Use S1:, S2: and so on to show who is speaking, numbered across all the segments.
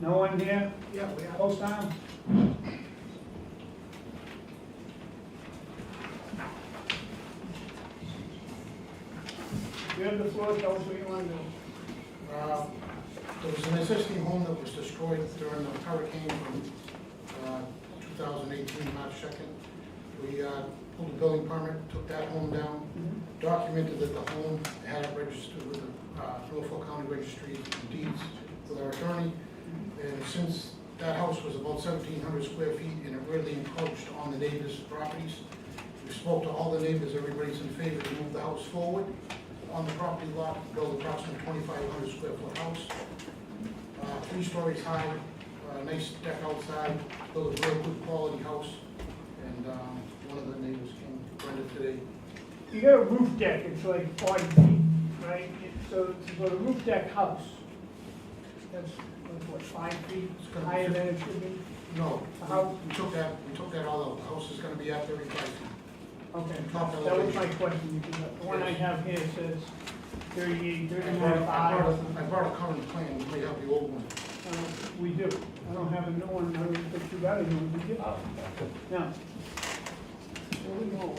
S1: No one here?
S2: Yeah, we have.
S1: Close down? You have the floor, tell us what you want to do.
S2: Uh, There was an existing home that was destroyed during the hurricane from uh, 2018, March 2nd. We uh, pulled a building permit, took that home down, documented that the home had it registered with the uh, Norfolk County Registry of Deeds with our attorney. And since that house was about 1,700 square feet and it really encroached on the neighbors' properties, we spoke to all the neighbors, everybody's in favor to move the house forward on the property lot, build approximately twenty-five hundred square foot house. Uh, three stories high, uh, nice deck outside, build a real good quality house. And, um, one of the neighbors came, Brenda today,
S1: You got a roof deck, it's like forty feet, right? It- So it's a roof deck house. That's, that's what, five feet
S2: It's gonna be
S1: higher than it should be?
S2: no,
S1: How-
S2: we- we took that, we took that all out, the house is gonna be at thirty-five feet.
S1: Okay,
S2: Top
S1: that was
S2: elevation.
S1: my question, because the one I have here says thirty-eight,
S2: I brought,
S1: thirty-nine,
S2: I
S1: five.
S2: brought a- I brought a current plan, you may have the old one.
S1: Uh, We do. I don't have a new one, I don't think you got a new one, did you?
S3: Oh,
S1: No. Well, we know.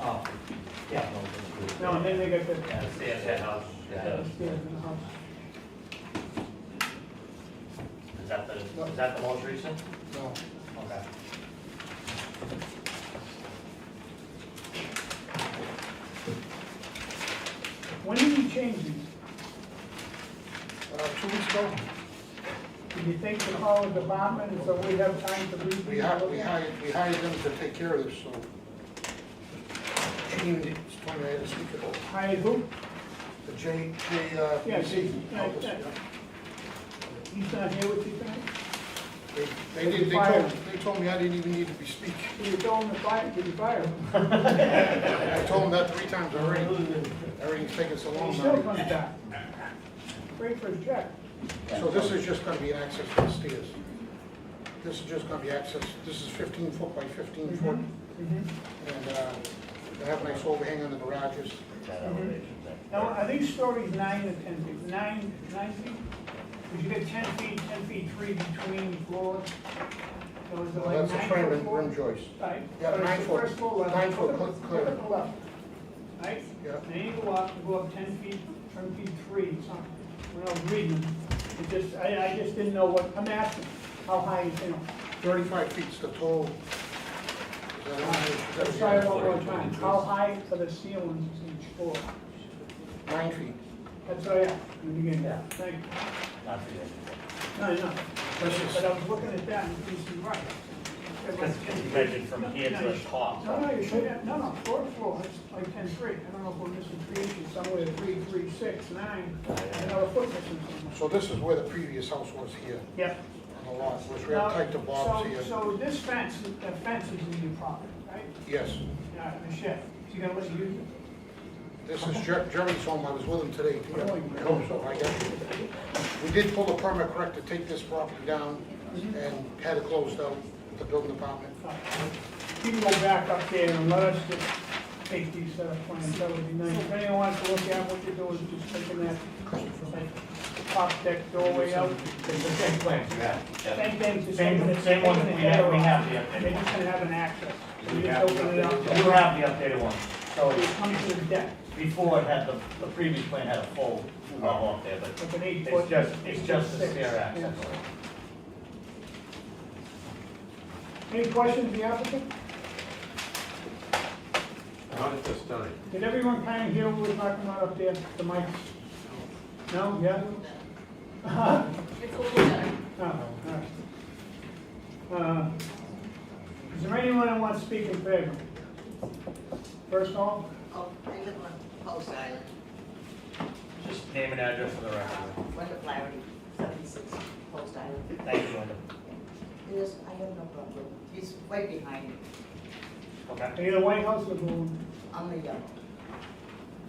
S3: oh, yeah.
S1: No, and then they got the
S3: Yeah, see, it's that house, yeah.
S1: upstairs in the house.
S3: Is that the, is that the most recent?
S2: No.
S3: Okay.
S1: When did you change these?
S2: Uh, two weeks ago,
S1: Did you think to call the department so we have time to read?
S2: We hired, we hired, we hired them to take care of this, so. Gene, it's funny, I had to speak about,
S1: Hired who?
S2: the J, J, uh,
S1: Yeah,
S2: PC.
S1: yeah, yeah. He's not here with you tonight?
S2: They, they did, they told, they told me I didn't even need to be speaking.
S1: Did you tell him to fire, did you fire him?
S2: I told them that three times already. Everything's taking so
S1: He
S2: long
S1: still
S2: now.
S1: comes back. Wait for his check.
S2: So this is just gonna be access to the stairs. This is just gonna be access, this is fifteen foot by fifteen foot,
S1: Mhm.
S2: and, uh, they have a nice overhang on the garages.
S3: That elevation there.
S1: Now, are these stories nine or ten feet? Nine, nine feet? Because you get ten feet, ten feet three between floors. So is it like nine
S2: That's a frame
S1: foot
S2: and
S1: floor?
S2: rim joist.
S1: Right.
S2: Yeah,
S1: But it's
S2: nine
S1: the
S2: foot-
S1: first floor level.
S2: nine foot
S1: Look at-
S2: cl- clear.
S1: Look at the level. Right?
S2: Yeah.
S1: Then you go up, you go up ten feet, ten feet three, it's not, when I was reading, it just, I, I just didn't know what, I'm asking, how high is it?
S2: Thirty-five feet's the total. Is that on there? Should that
S1: Let's
S2: be
S1: try it
S2: on
S1: one more
S2: there?
S1: time. How high are the ceilings each floor?
S2: Nine feet.
S1: That's all I have, in the beginning.
S3: Yeah.
S1: Thank you.
S3: Not too bad.
S1: No, no,
S2: This is-
S1: but I was looking at that and thinking, right.
S3: Because you measured from here to the top.
S1: No, no, you should have, no, no, fourth floor, it's like ten three, I don't know if we're missing three inches, somewhere three, three, six, nine, another foot missing somewhere.
S2: So this is where the previous house was here,
S1: Yep.
S2: on the lot, which we have tight to Bob's
S1: So-
S2: here.
S1: So this fence, the fence is in your property, right?
S2: Yes,
S1: Yeah, the shed, so you gotta let you use it.
S2: this is Jer- Jerry's home, I was with him today.
S1: What are you-
S2: I hope so, I got you. We did pull the permit correct to take this property down and had it closed out, with the building department.
S1: You can go back up there and let us just take these set of plans, that would be nice. If anyone wants to look at what you're doing, just taking that top deck doorway out.
S4: It's the same plan you have.
S1: Same thing, just
S3: Same-
S1: taking it-
S3: same one that we have- we have the updated
S1: They're just gonna have an access. You just open it up,
S3: You have the updated one.
S1: you
S3: So
S1: come to the deck,
S3: before it had the, the previous plan had a full level up there, but
S1: like an eight foot.
S3: it's just, it's just the
S1: six.
S3: stair access.
S1: Yeah. Any questions, of the applicant?
S4: Not at this time.
S1: Did everyone kind of hear what we're talking about up there, the mics? No, yeah? Uh-huh.
S5: It's a little better.
S1: Oh, all right. Uh, Is there anyone that wants to speak in favor? First all,
S6: Oh, I live on Post Island,
S3: Just name and address for the record.
S6: Wendell Flaherty, seventy-six Post Island.
S3: Thank you, Linda.
S6: It is, I have no problem, he's way behind me,
S3: Okay.
S1: are you the White House or the one,
S6: I'm the yellow.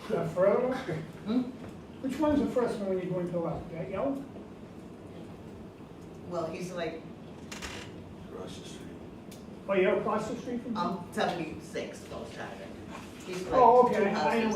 S1: the further one?
S6: Hmm?
S1: Which one's the first one when you go into left, that yellow?
S6: Well, he's like,
S1: Oh, you're across the street from?
S6: Um, I'm seventy-six Post Island. He's like
S1: Oh,
S6: two
S1: okay, I know
S6: houses